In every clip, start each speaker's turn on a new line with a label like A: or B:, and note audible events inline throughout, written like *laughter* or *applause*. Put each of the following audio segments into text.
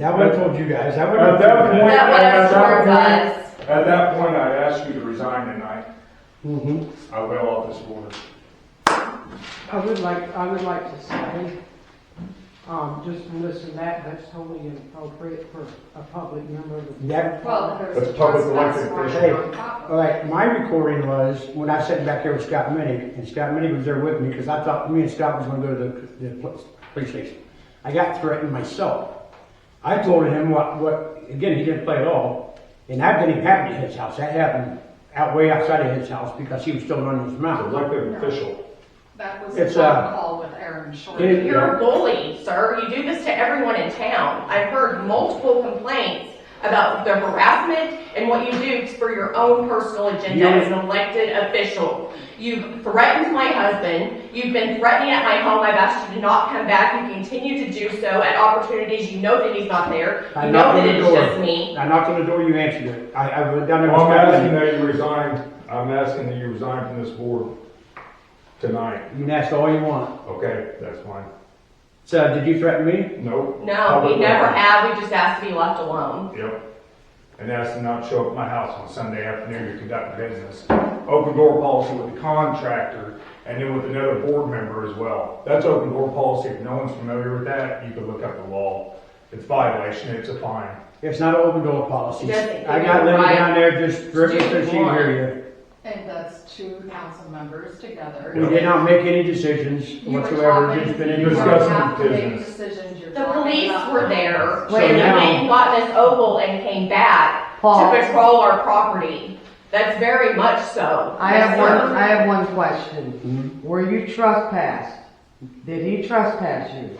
A: That would have told you guys, that would
B: At Uh, that
A: have.
B: point,
C: That would have
B: at that
C: served
B: point, at that point, I'd ask you to resign and I,
A: Mhm.
B: I will off this board.
D: I would like, I would like to say, um, just from this and that, that's totally inappropriate for a public member of the.
A: That,
C: Well, there was.
E: That's public elected
A: official. all
C: official.
A: right, my recording was when I sat back there with Scott Minnick, and Scott Minnick was there with me, because I thought me and Scott was gonna go to the, the pl- police station. I got threatened myself. I told him what, what, again, he didn't play at all, and that didn't happen at his house, that happened out way outside of his house, because he was still running his mouth.
B: Elected official.
C: That was
A: It's,
C: a
A: uh,
C: phone call with Aaron Short.
A: it-
F: You're a bully, sir. You do this to everyone in town. I've heard multiple complaints about the harassment and what you do for your own personal agenda as an elected official. You've threatened my husband. You've been threatening at my home. I've asked you to not come back. You continue to do so at opportunities you know that he's not there.
A: I
F: You
A: knocked
F: know
A: on
F: that
A: the
F: it's
A: door.
F: just me.
A: I knocked on the door, you answered it. I, I went down there.
B: I'm
A: with Scott
B: asking
A: Minnick.
B: Oh, that you resign, I'm asking that you resign from this board tonight,
A: You can ask all you want.
B: okay? That's fine.
A: So, did you threaten me?
B: Nope.
F: No, we
B: Public
F: never
B: record.
F: have. We just asked to be left alone.
B: Yep. And ask them not to show up at my house on Sunday afternoon to conduct business. Open door policy with the contractor and then with another board member as well. That's open door policy. If no one's familiar with that, you can look up the law. It's violation, it's a fine.
A: It's not an open door policy.
F: It doesn't-
A: I got Lynn
F: Right.
A: down there just dripping
F: Just do
A: so
F: what
A: she
F: you want.
A: hear
C: And that's two council members together.
A: you. We did not make any decisions
C: You were
A: whatsoever,
C: talking-
A: just been in
C: You don't
B: Discussing
C: have to make
B: business.
C: decisions. You're
F: The
C: talking
F: police
C: about-
F: were there
A: So
F: when
A: now-
F: they got this oval and came back
G: Paul.
F: to patrol our property. That's very much so.
G: I have
F: Yes,
G: one,
F: sir.
G: I have one question. Were you trespassed? Did he trespass you?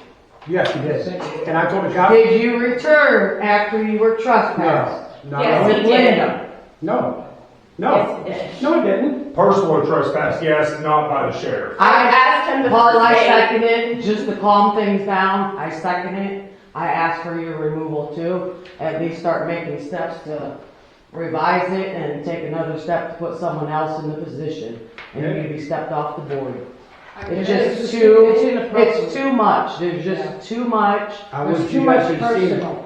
A: Yes, you did. And I told the cop.
G: Did you return after you were trespassed?
A: No, no,
F: Yes,
G: With
F: he did.
G: Linda?
A: no, no,
F: Yes, he did.
A: no, I didn't.
B: Personal trespass, yes, not by the sheriff.
F: I asked him to.
G: Paul, I
F: stay.
G: second it, just to calm things down, I second it. I asked for your removal too, at least start making steps to revise it and take another step to put someone else in the position. And you can be stepped off the board.
C: I mean,
G: It's
D: It's
G: just
D: just-
G: too,
D: it's inappropriate.
G: it's too much, there's
D: Yeah.
G: just too much.
A: I
G: There's
A: wish
G: too
A: you
G: much
A: guys should have seen it.
G: personal.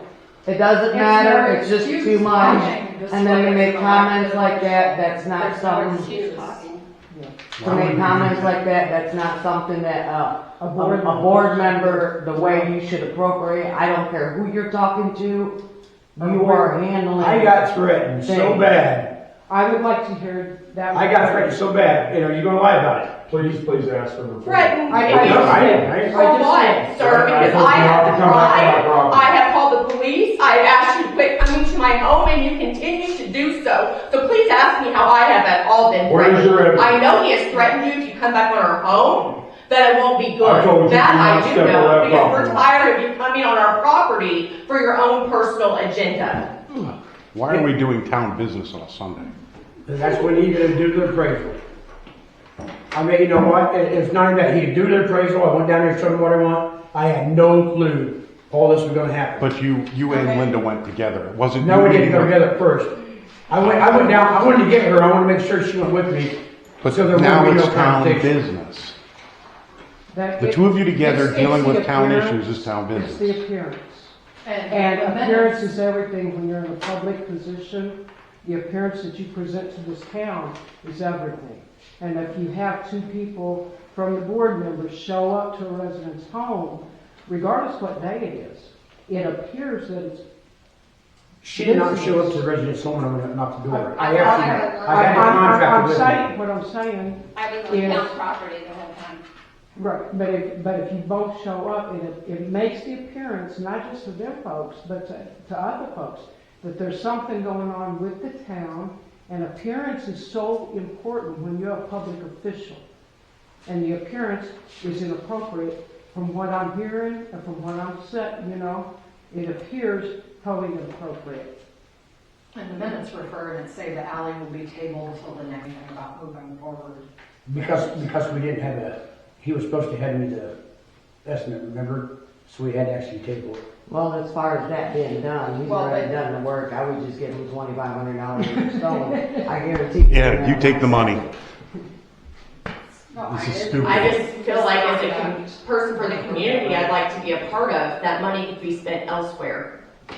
G: It doesn't
C: There's
G: matter,
C: no
G: it's just
C: excuse
G: too much.
C: talking. This
G: And then
C: is
G: to
C: what
G: make
C: it's
G: comments
C: about.
G: like that, that's not
C: There's no
G: something,
C: excuse.
G: to make comments like that, that's not something that, uh,
D: A
G: a,
D: board
G: a
D: member.
G: board member, the way you should appropriate, I don't care who you're talking to, you are handling.
A: I got threatened so
G: Dang.
A: bad.
D: I would like to hear that.
A: I got threatened so bad. And are you gonna lie about it?
B: Please, please ask for the.
F: Threatened
D: I-
A: No,
D: I
F: me.
D: just-
A: I didn't. I didn't.
D: I
G: Oh,
F: For
D: just-
F: what, sir? Because I
B: Come back
F: have
B: to my
F: tried,
B: property.
F: I have called the police, I have asked you to quit coming to my home, and you continue to do so. So please ask me how I have at all been
B: Where is
F: threatened.
B: your evidence?
F: I know he has threatened you if you come back on our home, that it won't be
B: I told you
F: good. That
B: do not
F: I do
B: step on that
F: know, because
B: property.
F: we're tired of you coming on our property for your own personal agenda.
H: Why are we doing town business on a Sunday?
A: And that's when he gonna do the appraisal. I mean, you know what, it, it's not even that, he do the appraisal, I went down there and showed him what I want, I had no clue all this was gonna happen.
H: But you, you and Linda went together. It wasn't.
A: No,
H: you
A: we didn't go
H: and-
A: together first. I went, I went down, I wanted to get her, I wanted to make sure she went with me.
H: But
A: so there
H: now
A: wouldn't be
H: it's
A: no
H: town
A: confrontation.
H: business. The two of you together
D: It's-
H: dealing
D: it's the
H: with town
D: appearance.
H: issues is town
D: It's the
H: business.
D: appearance.
C: And
D: And
C: the
D: appearance
C: minutes,
D: is everything when you're in a public position. The appearance that you present to this town is everything. And if you have two people from the board members show up to a resident's home, regardless what day it is, it appears that it's,
A: She did not show up to the residence home when I went up and knocked the door. I actually, I
D: I'm,
A: had a
D: I'm-
A: contract
D: I'm
A: with
D: saying,
A: her.
D: what I'm saying,
I: I was
D: Yeah.
I: on town property the whole time.
D: right, but if, but if you both show up, it, it makes the appearance, not just to them folks, but to, to other folks, that there's something going on with the town, and appearance is so important when you're a public official. And the appearance is inappropriate from what I'm hearing and from what I'm set, you know, it appears totally inappropriate.
C: and the minutes refer and say the alley will be tabled till the next thing about moving forward.
A: Because, because we didn't have a, he was supposed to hand me the estimate, remember? So we had to actually table it.
G: Well, as far as that being done, he's
C: Well,
G: already
C: but-
G: done the work, I would just give him twenty-five hundred
C: *laughs*
G: dollars for stolen, I guarantee. you
H: Yeah, you
G: that.
H: take the money.
C: No, I
H: This is
C: didn't.
H: stupid.
F: I just feel like as a com- person for the community, I'd like to be a part of, that money could be spent elsewhere.